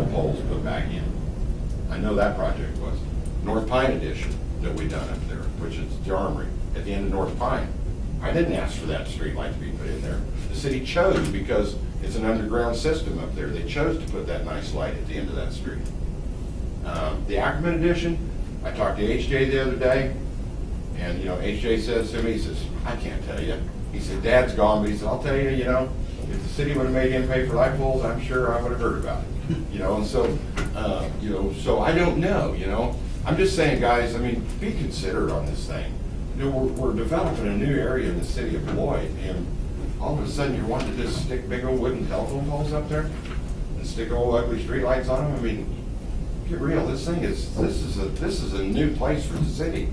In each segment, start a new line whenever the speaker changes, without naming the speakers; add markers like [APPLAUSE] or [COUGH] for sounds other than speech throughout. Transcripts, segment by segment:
was put back in. I know that project was. North Pine addition that we done up there, which is the armory at the end of North Pine. I didn't ask for that streetlight to be put in there. The city chose because it's an underground system up there. They chose to put that nice light at the end of that street. Um, The Ackerman addition, I talked to HJ the other day, and, you know, HJ says to me, he says, I can't tell you. He said, Dad's gone, but he said, I'll tell you, you know, if the city would've made him pay for light poles, I'm sure I would've heard about it. You know, and so, uh, you know, so I don't know, you know? I'm just saying, guys, I mean, be considerate on this thing. You know, we're, we're developing a new area in the city of Lloyd, and all of a sudden you're wanting to just stick big old wooden telephone poles up there? And stick old ugly streetlights on them? I mean, get real, this thing is, this is a, this is a new place for the city.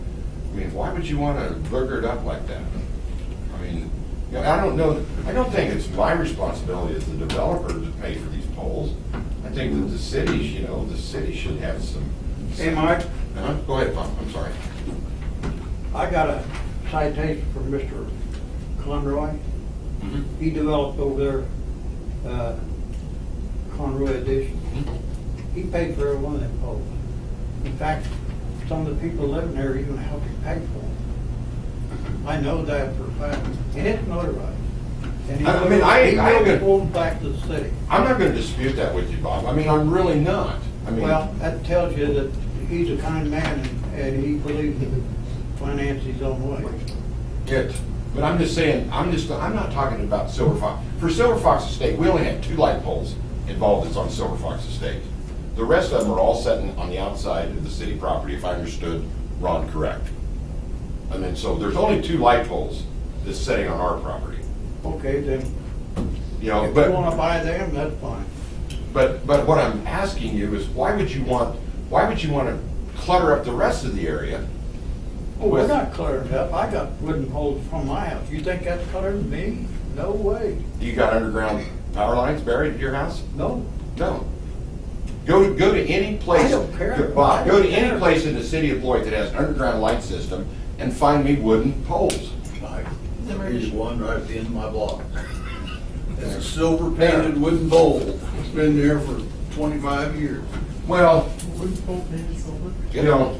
I mean, why would you wanna burger it up like that? I mean, you know, I don't know, I don't think it's my responsibility as the developer to pay for these poles. I think that the cities, you know, the city should have some.
Hey, Mike.
Uh-huh, go ahead, Bob, I'm sorry.
I got a citation from Mr. Conroy. He developed over there, uh, Conroy Edition. He paid for every one of them poles. In fact, some of the people living there even helped him pay for them. I know that for a fact, and it's notarized. And he
I- I mean, I-
He
I-
really pulled back to the city.
I'm not gonna dispute that with you, Bob, I mean, I'm really not. I mean,
Well, that tells you that he's a kind man and- and he believes in finance his own way.
It, but I'm just saying, I'm just, I'm not talking about Silver Fox. For Silver Fox Estate, we only had two light poles involved that's on Silver Fox Estate. The rest of them are all sitting on the outside of the city property, if I understood Ron correct. And then, so there's only two light poles that's sitting on our property,
Okay, then
you know,
If you
but,
wanna buy them, that's fine.
but, but what I'm asking you is, why would you want, why would you wanna clutter up the rest of the area?
Oh,
Well, we're
with-
not cluttered up. I got wooden poles from my house. You think that's cluttered me? No way.
You got underground power lines buried at your house?
No.
No. Go to, go to any place.
I don't care.
Go- Bob, go to
I don't
any
care.
place in the city of Lloyd that has an underground light system and find me wooden poles.
Mike, There's one right at the end of my
[LAUGHS]
block. It's a silver painted wooden bowl. It's been there for twenty-five years.
Well,
Wooden pole painted silver?
you know,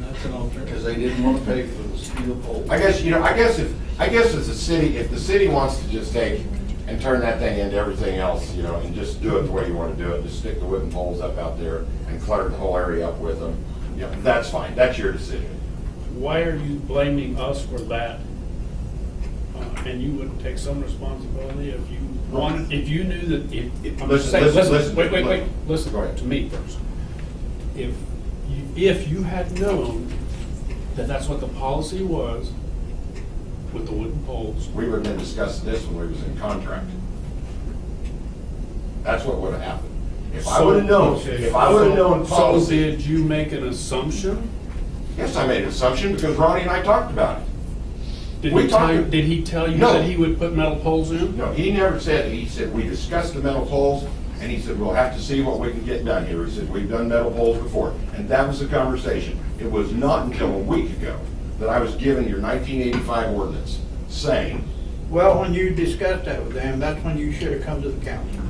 That's an alternative. Because they didn't want to pay for the steel pole.
I guess, you know, I guess if, I guess as a city, if the city wants to just take and turn that thing into everything else, you know, and just do it the way you want to do it, just stick the wooden poles up out there and clutter the whole area up with them, you know, that's fine. That's your decision.
Why are you blaming us for that? Uh, And you wouldn't take some responsibility if you wanted, if you knew that, if, if, I'm just
Listen,
saying,
listen,
listen,
listen,
wait, wait, wait,
listen. Go
listen
ahead.
to me first. If, you- if you had known that that's what the policy was with the wooden poles,
We would have been discussing this when we was in contract. That's what would have happened. If I
So-
would have known,
okay,
if I would have
so-
known
So
policy.
did you make an assumption?
Yes, I made an assumption because Ronnie and I talked about it.
Did
We
he
talked-
tell, did he tell you
No.
that he would put metal poles in?
No, he never said, he said, we discussed the metal poles and he said, we'll have to see what we can get done here. He said, we've done metal poles before. And that was the conversation. It was not until a week ago that I was given your nineteen eighty-five ordinance saying,
Well, when you discussed that with them, that's when you should have come to the council.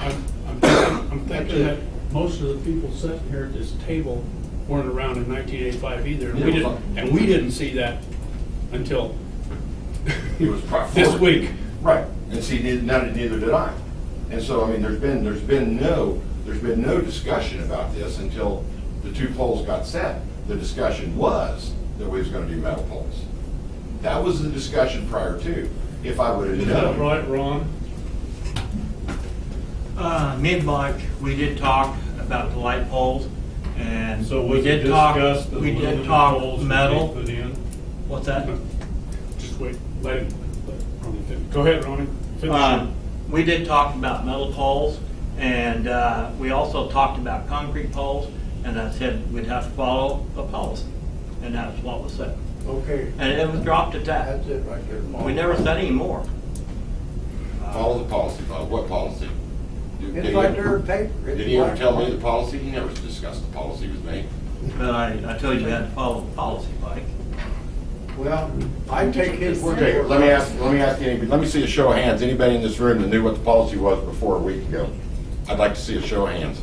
I'm [COUGHS] I'm thinking I'm thinking that most of the people sitting here at this table weren't around in 1985 either, and we
Yeah,
didn't,
fine.
and we didn't see that until
He was brought forward.
this week.
Right, and see, neither- none, neither did I. And so, I mean, there's been, there's been no, there's been no discussion about this until the two poles got set. The discussion was that we was gonna do metal poles. That was the discussion prior to, if I would
Is
have
that
known.
right, Ron?
Uh, mid-March, we did talk about the light poles, and
So
we
was it
did talk,
discussed that
we
aluminum
did talk
poles would be
metal.
put in?
What's that?
Just wait, let him, let Ronnie finish. Go ahead, Ronnie. Finish
Uh,
your-
We did talk about metal poles, and uh, we also talked about concrete poles, and I said we'd have to follow a policy, and that's what was said.
Okay,
And it was dropped at that.
that's it right there.
We never said any more.
Follow the policy, Bob. what policy? Did- did
It's
he
right
ever-
there in paper.
Did he ever tell me the policy? He never discussed the policy with me.
But I, I told you you had to follow the policy, Mike.
Well, I take his word.
Okay,
for it.
let me ask, let me ask anybody, let me see a show of hands. Anybody in this room that knew what the policy was before a week ago? I'd like to see a show of hands.